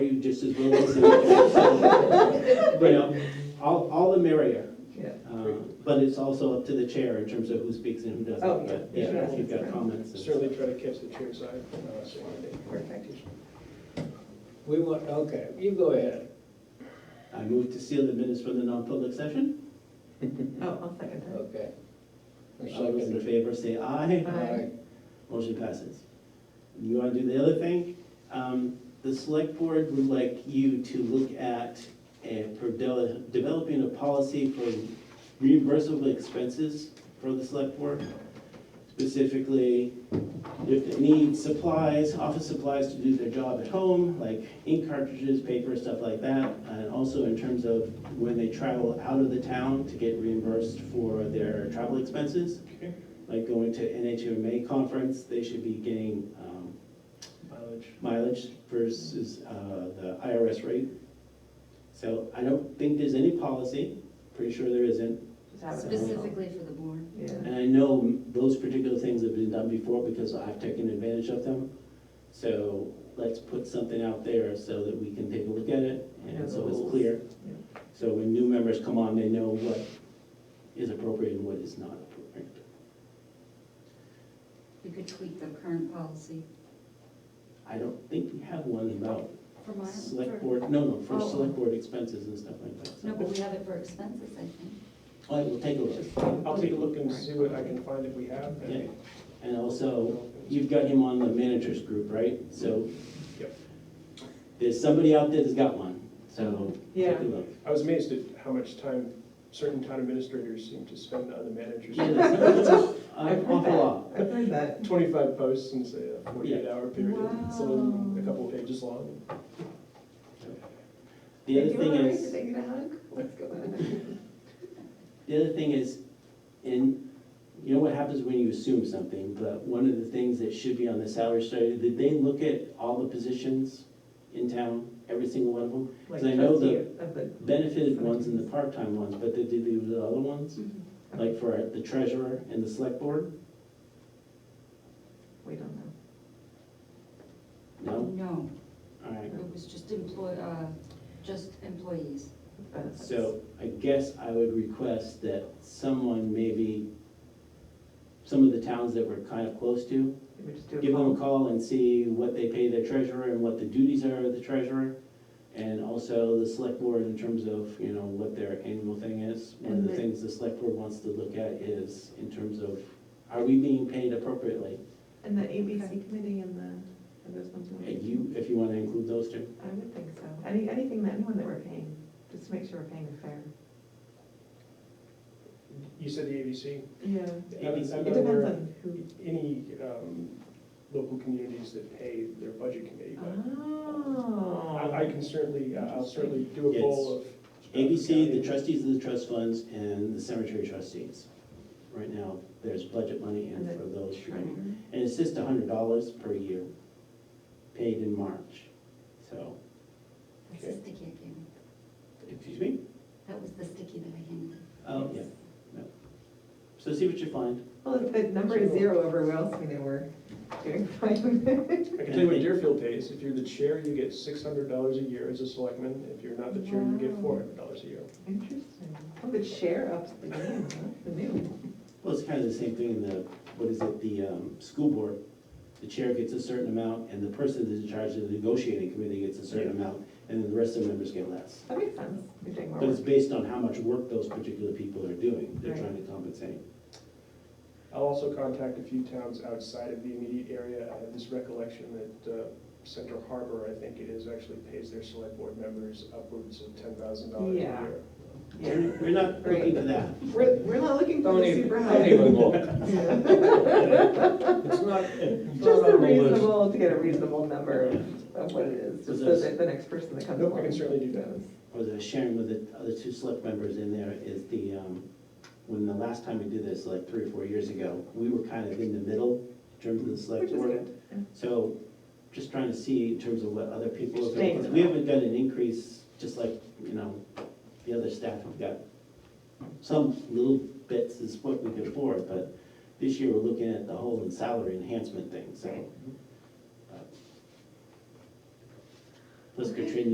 just as well as. so, You know, all, all the merrier. Yeah. Uh, But it's also up to the chair in terms of who speaks and who doesn't. Oh, yeah. But, Yeah, if you've got comments. and- Certainly try to catch the chair's eye from us one day. Perfect. We want, okay, you go ahead. I move to seal the minutes from the non-public session. Oh, I'll second that. Okay. A All those in second. favor say aye. Aye. Motion passes. You want to do the other thing? Um, The select board would like you to look at uh, for de- developing a policy for reimbursable expenses for the select board. Specifically, if they need supplies, office supplies to do their job at home, like ink cartridges, paper, stuff like that. And also in terms of when they travel out of the town to get reimbursed for their travel expenses Okay. like going to NHMA conference, they should be getting um, Mileage. mileage versus uh, the IRS rate. So I don't think there's any policy, pretty sure there isn't. That would help. Specifically for the board. Yeah. And I know those particular things have been done before because I've taken advantage of them. So let's put something out there so that we can take a look at it and so it's clear. So when new members come on, they know what is appropriate and what is not appropriate. You could tweak the current policy. I don't think we have one about For my, Select for, board, no, no, for Oh. select board expenses and stuff like that. so- no, but we have it for expenses, I think. I will take a look. I'll take a look and see what I can find if we have. Yeah. And also, you've got him on the managers group, right? So. Yep. There's somebody out there that's got one, so take Yeah. a look. I was amazed at how much time certain town administrators seem to spend on the managers. Yeah, that's, that's an I've heard awful that. lot. I've heard that. Twenty-five posts in say a forty-eight hour period, Wow. some of them a couple pages long. The other thing is, Take it out. What's going on? the other thing is, and you know what happens when you assume something, but one of the things that should be on the salary study, did they look at all the positions in town, every single one of them? Like I know the- trustee of the- benefited ones and the part-time ones, but they did leave the other ones, Mm-hmm. like for the treasurer and the select board? We don't know. No? No, All right. it was just employ, uh, just employees. Benefits. So I guess I would request that someone maybe, some of the towns that we're kind of close to, Maybe we just do a give them a poll. call and see what they pay their treasurer and what the duties are of the treasurer. And also the select board in terms of, you know, what their annual thing is. One of And the the- things the select board wants to look at is in terms of, are we being paid appropriately? And the ABC committee and the, and those ones. we- And you, if you want to include those two. I would think so. Any, anything that, anyone that we're paying, just to make sure we're paying it fair. You said the ABC? Yeah. I'm- ABC. I'm It not depends aware of on who. Any um, local communities that pay their budget committee, Uh-huh. but Oh. I I can certainly, uh, I'll certainly do a poll of. uh, ABC, the trustees of the trust funds, and the cemetery trustees. Right now, there's budget money in for those three. And Treasurer. it's just a hundred dollars per year, paid in March. So, That's the Okay. sticky I gave you. excuse me? That was the sticky that I handed. Oh, yeah, no. So see what you find. Well, if the number is zero everywhere else, we know we're doing fine. I can tell you what Deerfield pays. If you're the chair, you get six hundred dollars a year as a selectman. If you're not the chair, you get Wow. four hundred dollars a year. Interesting. Well, the share ups the game, huh? The new. Well, it's kind of the same thing in the, what is it, the um, school board. The chair gets a certain amount, and the person that's in charge of the negotiating committee gets a certain amount, and then the rest of the members get less. That makes sense. You're doing more But it's work. based on how much work those particular people are doing, they're Right. trying to compensate. I'll also contact a few towns outside of the immediate area. I have this recollection that uh, Central Harbor, I think it is, actually pays their select board members upwards of ten thousand dollars a Yeah. year. Yeah. We're we're not looking for that. We're, we're not looking for Don't the even, super don't high. even look. Yeah. It's not, it's Just not a on the list. reasonable, to get a reasonable number of of what it is, just so that the next person that comes Nope, I along. can certainly do that. knows. Or the sharing with the other two select members in there is the, um, when the last time we did this, like three or four years ago, we were kind of in the middle in terms of the Which select is board. good. So just trying to see in terms of what other people are Staying doing. 'Cause in We the- haven't done an increase, just like, you know, the other staff have got some little bits is what we could afford, but this year we're looking at the whole salary enhancement thing, so. Right. Plus Okay. Katrina,